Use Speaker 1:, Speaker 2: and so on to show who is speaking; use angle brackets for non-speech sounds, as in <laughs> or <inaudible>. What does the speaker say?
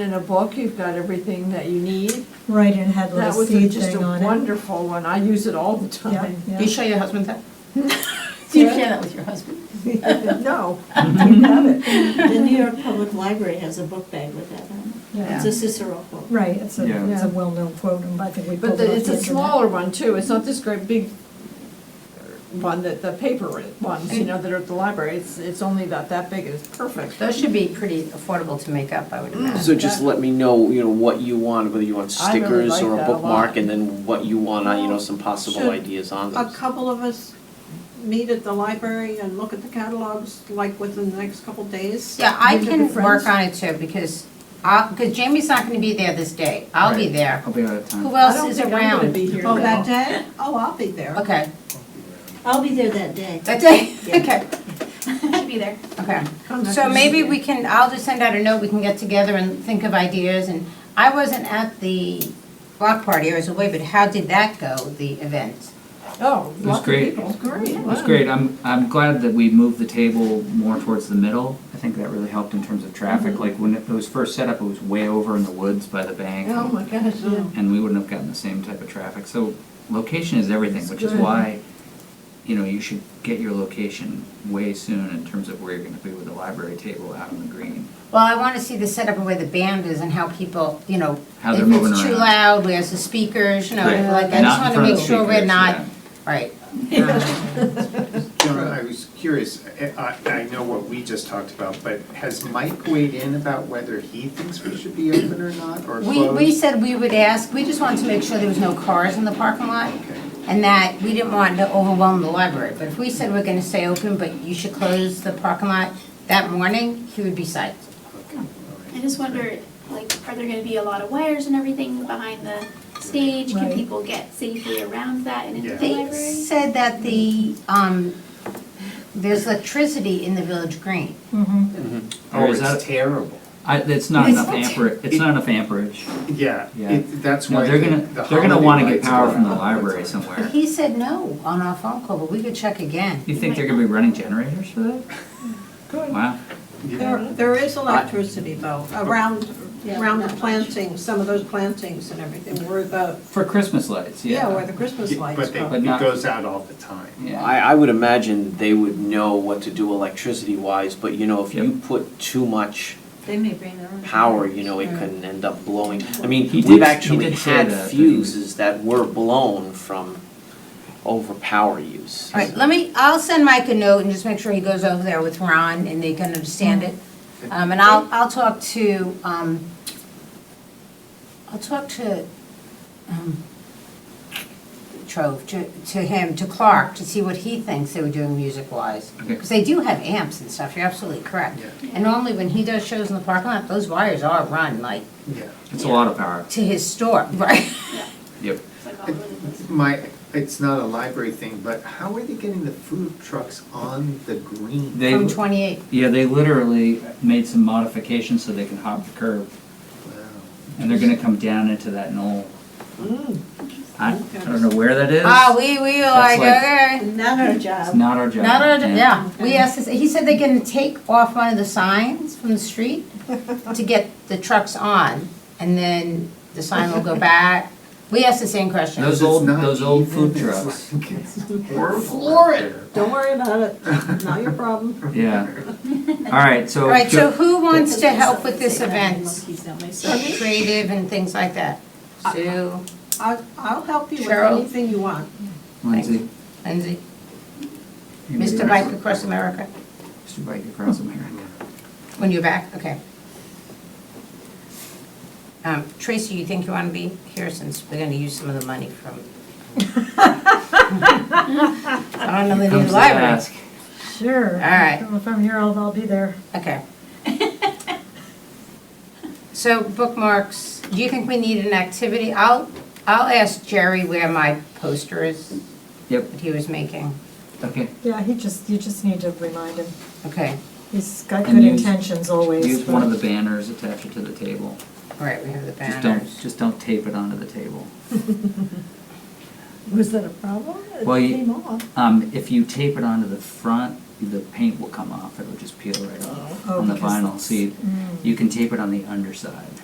Speaker 1: In a book, you've got everything that you need.
Speaker 2: Right, and had a
Speaker 1: That
Speaker 2: little
Speaker 1: was
Speaker 2: seed
Speaker 1: just a
Speaker 2: thing on it.
Speaker 1: wonderful one, I use it all the
Speaker 2: Yeah,
Speaker 1: time.
Speaker 2: yeah.
Speaker 3: Do you show your husband that? Do you share
Speaker 1: Yeah.
Speaker 3: that with your husband?
Speaker 1: <laughs> No,
Speaker 3: <laughs>
Speaker 1: you have it.
Speaker 4: The New York Public Library has a book bag with that on it.
Speaker 2: Yeah.
Speaker 4: It's a Cicero quote.
Speaker 2: Right, it's
Speaker 5: Yeah.
Speaker 2: a, it's a
Speaker 1: Yeah.
Speaker 2: well-known quote, and I think we
Speaker 1: But
Speaker 2: pulled it off
Speaker 1: the-
Speaker 2: the
Speaker 1: it's a
Speaker 2: internet.
Speaker 1: smaller one too, it's not this great big one that the paper ones, you know, that are at the library. It's, it's only about that big, it's perfect.
Speaker 3: Those should be pretty affordable to make up, I would
Speaker 6: So
Speaker 3: imagine.
Speaker 6: just let me know, you know, what you want, whether you want
Speaker 1: I really
Speaker 6: stickers
Speaker 1: like
Speaker 6: or a
Speaker 1: that a
Speaker 6: bookmark,
Speaker 1: lot.
Speaker 6: and then what you want, on, you know, some possible
Speaker 7: Should
Speaker 6: ideas on
Speaker 7: a
Speaker 6: those.
Speaker 7: couple of us meet at the library and look at the catalogs, like within the next couple days?
Speaker 3: Yeah, I
Speaker 7: Meet
Speaker 3: can
Speaker 7: with your
Speaker 3: work
Speaker 7: friends?
Speaker 3: on it too, because, I- because Jamie's not gonna be there this day. I'll be
Speaker 5: Right.
Speaker 3: there.
Speaker 5: I'll be out of time.
Speaker 3: Who
Speaker 1: I
Speaker 3: else
Speaker 1: don't
Speaker 3: is
Speaker 1: think I'm gonna
Speaker 3: around?
Speaker 1: be here,
Speaker 7: Oh,
Speaker 1: though.
Speaker 7: that day? Oh, I'll be there.
Speaker 3: Okay,
Speaker 4: I'll be there that day.
Speaker 1: <laughs>
Speaker 3: that day,
Speaker 4: Yeah.
Speaker 3: okay,
Speaker 8: Should be there.
Speaker 3: okay.
Speaker 1: I'm not
Speaker 3: So
Speaker 1: gonna
Speaker 3: maybe
Speaker 1: be
Speaker 3: we can, I'll just send out a note, we can get together and think of ideas, and I wasn't at the block party, I was away, but how did that go, the event?
Speaker 1: there. Oh,
Speaker 5: It was
Speaker 1: lots of
Speaker 5: great.
Speaker 1: people. Great.
Speaker 5: It was great. I'm, I'm glad that we moved the table more towards the middle. I think that really helped in terms of traffic.
Speaker 3: Mm-hmm.
Speaker 5: Like when it was first set up, it was way over in the woods by the bank.
Speaker 1: Oh, my gosh, yeah.
Speaker 5: And we wouldn't have gotten the same type of traffic. So location is everything,
Speaker 1: It's
Speaker 5: which is
Speaker 1: good.
Speaker 5: why, you know, you should get your location way soon in terms of where you're gonna be with the library table out on the green.
Speaker 3: Well, I wanna see the setup of where the band is and how people, you know,
Speaker 5: How they're
Speaker 3: If
Speaker 5: moving
Speaker 3: it's too
Speaker 5: around.
Speaker 3: loud, where's the speakers, you know,
Speaker 5: Right.
Speaker 3: like, I just
Speaker 5: Not in
Speaker 3: wanna
Speaker 5: front of
Speaker 3: make
Speaker 5: the
Speaker 3: sure we're
Speaker 5: speakers,
Speaker 3: not,
Speaker 5: yeah.
Speaker 3: right.
Speaker 9: Joan, I was curious, I, I I know what we just talked about, but has Mike weighed in about whether he thinks we should be open or not, or
Speaker 3: We,
Speaker 9: closed?
Speaker 3: we said we would ask, we just wanted to make sure there was no cars in the parking lot,
Speaker 9: Okay.
Speaker 3: and that we didn't want to overwhelm the library, but if we said we're gonna stay open, but you should close the parking lot that morning, he would be psyched.
Speaker 9: Okay, all right.
Speaker 8: I just wonder, like, are there gonna be a lot of wires and everything behind the stage? Can
Speaker 2: Right.
Speaker 8: people get safely around that and into the
Speaker 9: Yeah.
Speaker 3: They
Speaker 8: library?
Speaker 3: said that the, um, there's electricity in the Village Green.
Speaker 2: Mhm.
Speaker 5: Or
Speaker 9: Oh,
Speaker 5: is that-
Speaker 9: it's terrible.
Speaker 5: I, it's not
Speaker 3: It's
Speaker 5: enough
Speaker 3: not-
Speaker 5: amperage, it's not enough amperage.
Speaker 9: Yeah,
Speaker 5: Yeah.
Speaker 9: it, that's
Speaker 5: No,
Speaker 9: why
Speaker 5: they're
Speaker 9: the
Speaker 5: gonna,
Speaker 9: the
Speaker 5: they're gonna
Speaker 9: holiday
Speaker 5: wanna get
Speaker 9: lights
Speaker 5: power
Speaker 9: go
Speaker 5: from the
Speaker 9: out.
Speaker 5: library
Speaker 9: That's all.
Speaker 5: somewhere.
Speaker 3: <laughs> He said no on our phone call, but we could check again.
Speaker 5: You think they're gonna be running generators for that?
Speaker 3: <laughs>
Speaker 5: Wow.
Speaker 9: Yeah.
Speaker 7: There, there is electricity though, around, around the plantings, some of those plantings and everything, where the,
Speaker 5: For Christmas lights, yeah.
Speaker 7: yeah, where the Christmas lights
Speaker 9: But they,
Speaker 7: go.
Speaker 5: But not-
Speaker 9: it goes out all the time.
Speaker 5: Yeah.
Speaker 6: I, I would imagine they would know what to do electricity-wise, but you know, if you put too much
Speaker 4: They may bring their own.
Speaker 6: power, you know, it can end up blowing. I mean,
Speaker 5: He
Speaker 6: we've
Speaker 5: did- he
Speaker 6: actually
Speaker 5: did say
Speaker 6: had
Speaker 5: that, that he-
Speaker 6: fuses that were blown from overpower use.
Speaker 3: All right, let me, I'll send Mike a note and just make sure he goes over there with Ron and they can understand it. Um, and I'll, I'll talk to, um, I'll talk to, um, Trove, to, to him, to Clark, to see what he thinks they were doing music-wise.
Speaker 5: Okay.
Speaker 3: Because they do have amps and stuff, you're absolutely correct.
Speaker 9: Yeah.
Speaker 3: And normally when he does shows in the parking lot, those wires are run like
Speaker 9: Yeah.
Speaker 5: It's a lot of power.
Speaker 3: to his store, <laughs> right?
Speaker 5: Yep.
Speaker 8: It's like all over the place.
Speaker 9: My, it's not a library thing, but how are they getting the food trucks on the green?
Speaker 5: They-
Speaker 3: From twenty-eight.
Speaker 5: Yeah, they literally made some modifications so they can hop the curb,
Speaker 9: Wow.
Speaker 5: and they're gonna come down into that knoll. I, I don't know where that is.
Speaker 3: Oh, Ah, we, we were like,
Speaker 5: That's
Speaker 3: okay.
Speaker 5: like-
Speaker 4: Not our
Speaker 5: It's
Speaker 4: job.
Speaker 5: not our job.
Speaker 3: Not on, yeah, we asked, this- he said they're gonna take off one of the signs from the street to get the trucks on, and then the sign will go back. We asked the same question.
Speaker 5: Those
Speaker 9: It's
Speaker 5: old-
Speaker 9: not
Speaker 5: those old food
Speaker 9: even, it's
Speaker 5: trucks.
Speaker 9: like- <laughs> It's horrible
Speaker 7: Floor
Speaker 9: out
Speaker 7: it.
Speaker 9: there.
Speaker 7: Don't worry about it, not your problem.
Speaker 5: Yeah. All right, so.
Speaker 3: All right, so
Speaker 5: Jo-
Speaker 3: who wants to help with
Speaker 4: Something
Speaker 3: this
Speaker 4: like that,
Speaker 3: event?
Speaker 4: monkeys don't make sense.
Speaker 3: Creative and things like that. Sue,
Speaker 7: I'll, I'll help you with
Speaker 3: Cheryl?
Speaker 7: anything you want.
Speaker 5: Lindsay.
Speaker 3: Lindsay,
Speaker 5: anybody
Speaker 3: Mr.
Speaker 5: else?
Speaker 3: Bike Across America,
Speaker 5: Mr. Bike across America.
Speaker 3: when you're back, okay. Um, Tracy, you think you wanna be here since we're gonna use some of the money from? I don't know the
Speaker 5: Comes
Speaker 3: new
Speaker 5: to
Speaker 3: library.
Speaker 5: ask.
Speaker 2: Sure. All
Speaker 3: right.
Speaker 2: If I'm here, I'll, I'll be there.
Speaker 3: Okay. So bookmarks, do you think we need an activity? I'll, I'll ask Jerry where my poster is
Speaker 5: Yep,
Speaker 3: that he was making.
Speaker 5: okay.
Speaker 2: Yeah, he just, you just need to remind him.
Speaker 3: Okay,
Speaker 2: He's got
Speaker 5: And
Speaker 2: good
Speaker 5: use-
Speaker 2: intentions always.
Speaker 5: Use
Speaker 2: but-
Speaker 5: one of the banners, attach it to the table.
Speaker 3: all right, we have the
Speaker 5: Just don't,
Speaker 3: banners.
Speaker 5: just don't tape it onto the table.
Speaker 1: <laughs> Was that a problem? It
Speaker 5: Well, you-
Speaker 1: came off.
Speaker 5: Um, if you tape it onto the front, the paint will come off, it'll just peel right off
Speaker 2: Oh,
Speaker 5: on the
Speaker 2: because
Speaker 5: vinyl
Speaker 2: it's- mm.
Speaker 5: seat. You can tape it on the underside.